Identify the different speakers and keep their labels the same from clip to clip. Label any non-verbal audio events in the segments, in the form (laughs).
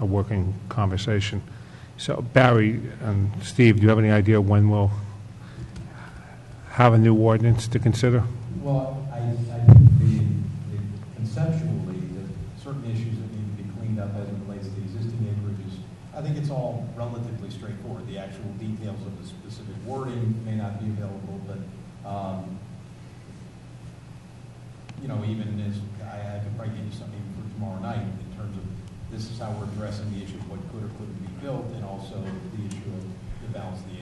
Speaker 1: a working conversation. So Barry and Steve, do you have any idea when we'll have a new ordinance to consider?
Speaker 2: Well, I, I think the, the conceptually, that certain issues that need to be cleaned up as it relates to the existing acreages, I think it's all relatively straightforward. The actual details of the specific wording may not be available, but, um, you know, even as, I, I could probably give you something for tomorrow night in terms of, this is how we're addressing the issue of what could or couldn't be built, and also the issue of the balance of the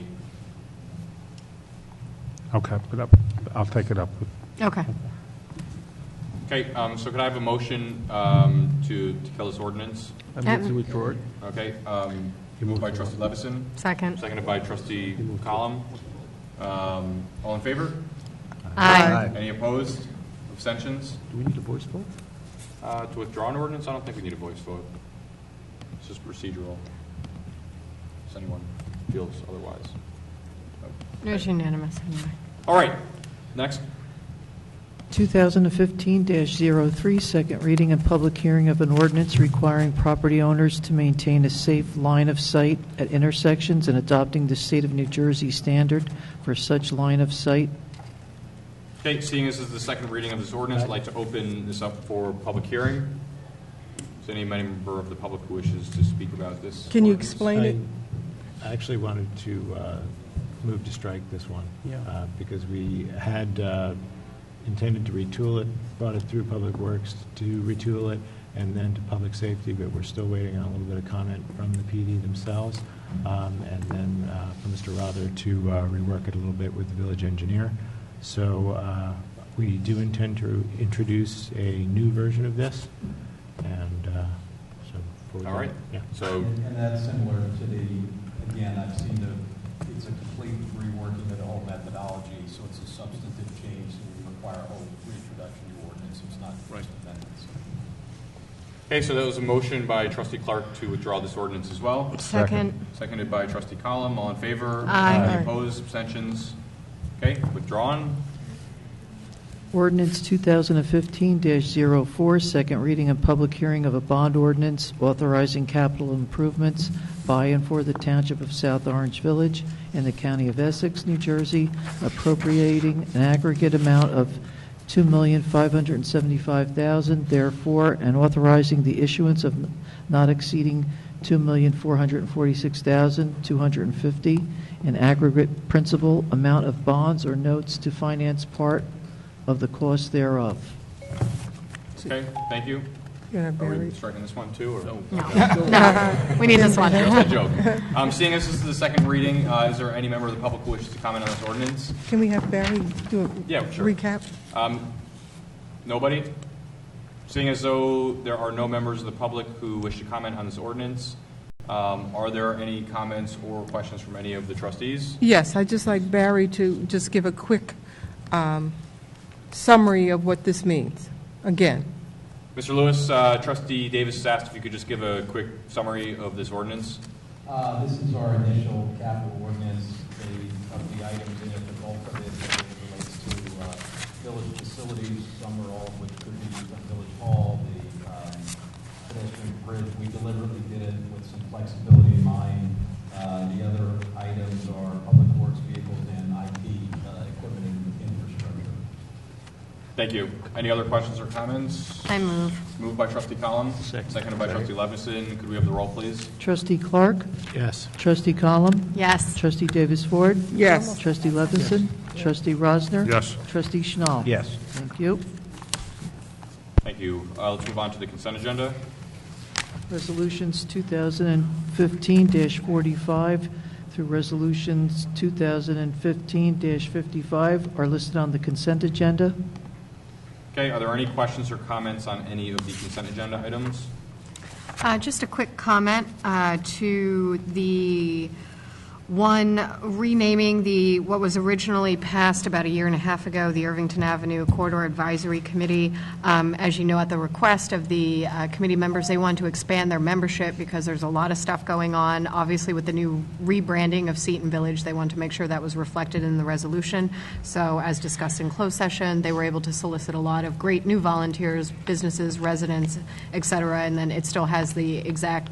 Speaker 2: acreage.
Speaker 1: Okay, but I'll- I'll take it up.
Speaker 3: Okay.
Speaker 4: Okay, um, so could I have a motion um, to to kill this ordinance?
Speaker 5: I
Speaker 3: Uh,
Speaker 5: move to withdraw it.
Speaker 4: Okay, um, moved by trustee Levison,
Speaker 3: Second.
Speaker 4: seconded by trustee Column. Um, All in favor?
Speaker 3: Aye.
Speaker 4: Any opposed? Abstentions?
Speaker 5: Do we need a voice vote?
Speaker 4: Uh, To withdraw an ordinance, I don't think we need a voice vote. It's just procedural. If anyone feels otherwise.
Speaker 3: It was unanimous anyway.
Speaker 4: All right, next.
Speaker 6: 2015-03, second reading and public hearing of an ordinance requiring property owners to maintain a safe line of sight at intersections and adopting the state of New Jersey standard for such line of sight.
Speaker 4: Okay, seeing this is the second reading of this ordinance, I'd like to open this up for public hearing. Is there any member of the public who wishes to speak about this?
Speaker 7: Can you
Speaker 4: ordinance?
Speaker 7: explain it?
Speaker 8: I actually wanted to uh, move to strike this one.
Speaker 5: Yeah.
Speaker 8: uh, Because we had uh, intended to retool it, brought it through Public Works to retool it, and then to Public Safety, but we're still waiting on a little bit of comment from the PD themselves, um, and then uh, from Mr. Rother to uh, rework it a little bit with the village engineer. So uh, we do intend to introduce a new version of this, and uh, so. before we-
Speaker 4: All right.
Speaker 8: Yeah.
Speaker 4: So,
Speaker 2: And and that's similar to the, again, I've seen the, it's a complete reworking of the whole methodology, so it's a substantive change, so we require a whole reintroduction to ordinance, it's not just amendments.
Speaker 4: okay, so that was a motion by trustee Clark to withdraw this ordinance as well,
Speaker 3: Second.
Speaker 4: seconded by trustee Column. All in favor?
Speaker 3: Aye.
Speaker 4: Any opposed, abstentions? Okay, withdrawn.
Speaker 6: Ordinance 2015-04, second reading and public hearing of a bond ordinance authorizing capital improvements by and for the Township of South Orange Village in the County of Essex, New Jersey, appropriating an aggregate amount of $2,575,000, therefore, and authorizing the issuance of not exceeding $2,446,250 in aggregate principal amount of bonds or notes to finance part of the cost thereof.
Speaker 4: Okay, thank you.
Speaker 7: Yeah,
Speaker 4: Are we
Speaker 7: Barry.
Speaker 4: striking this one too, or? No.
Speaker 3: No, we need this one.
Speaker 4: (laughs) Just a joke. Um, Seeing as this is the second reading, uh, is there any member of the public who wishes to comment on this ordinance?
Speaker 7: Can we have Barry do a
Speaker 4: Yeah, sure.
Speaker 7: recap?
Speaker 4: Um, Nobody? Seeing as though there are no members of the public who wish to comment on this ordinance, um, are there any comments or questions from any of the trustees?
Speaker 7: Yes, I'd just like Barry to just give a quick um, summary of what this means, again.
Speaker 4: Mr. Lewis, uh, trustee Davis has asked if you could just give a quick summary of this ordinance.
Speaker 2: Uh, This is our initial capital ordinance, the, of the items in it, the bulk of it that relates to uh, village facilities, some or all of which could be used on Village Hall, the um, pedestrian bridge. We deliberately did it with some flexibility in mind. Uh, The other items are public works vehicles and IT uh, equipment and infrastructure.
Speaker 4: Thank you. Any other questions or comments?
Speaker 3: I move.
Speaker 4: Moved by trustee Column, seconded by trustee Levinson. Could we have the roll, please?
Speaker 6: Trustee Clark?
Speaker 8: Yes.
Speaker 6: Trustee Column?
Speaker 3: Yes.
Speaker 6: Trustee Davis Ford?
Speaker 7: Yes.
Speaker 6: Trustee Levinson? Trustee Rosner?
Speaker 1: Yes.
Speaker 6: Trustee Schnall?
Speaker 5: Yes.
Speaker 6: Thank you.
Speaker 4: Thank you. Uh, Let's move on to the consent agenda.
Speaker 6: Resolutions 2015-45 through resolutions 2015-55 are listed on the consent agenda.
Speaker 4: Okay, are there any questions or comments on any of the consent agenda items?
Speaker 3: Uh, Just a quick comment uh, to the one renaming the, what was originally passed about a year and a half ago, the Irvington Avenue Corridor Advisory Committee. Um, As you know, at the request of the uh, committee members, they want to expand their membership because there's a lot of stuff going on. Obviously, with the new rebranding of Seton Village, they want to make sure that was reflected in the resolution. So as discussed in closed session, they were able to solicit a lot of great new volunteers, businesses, residents, et cetera, and then it still has the exact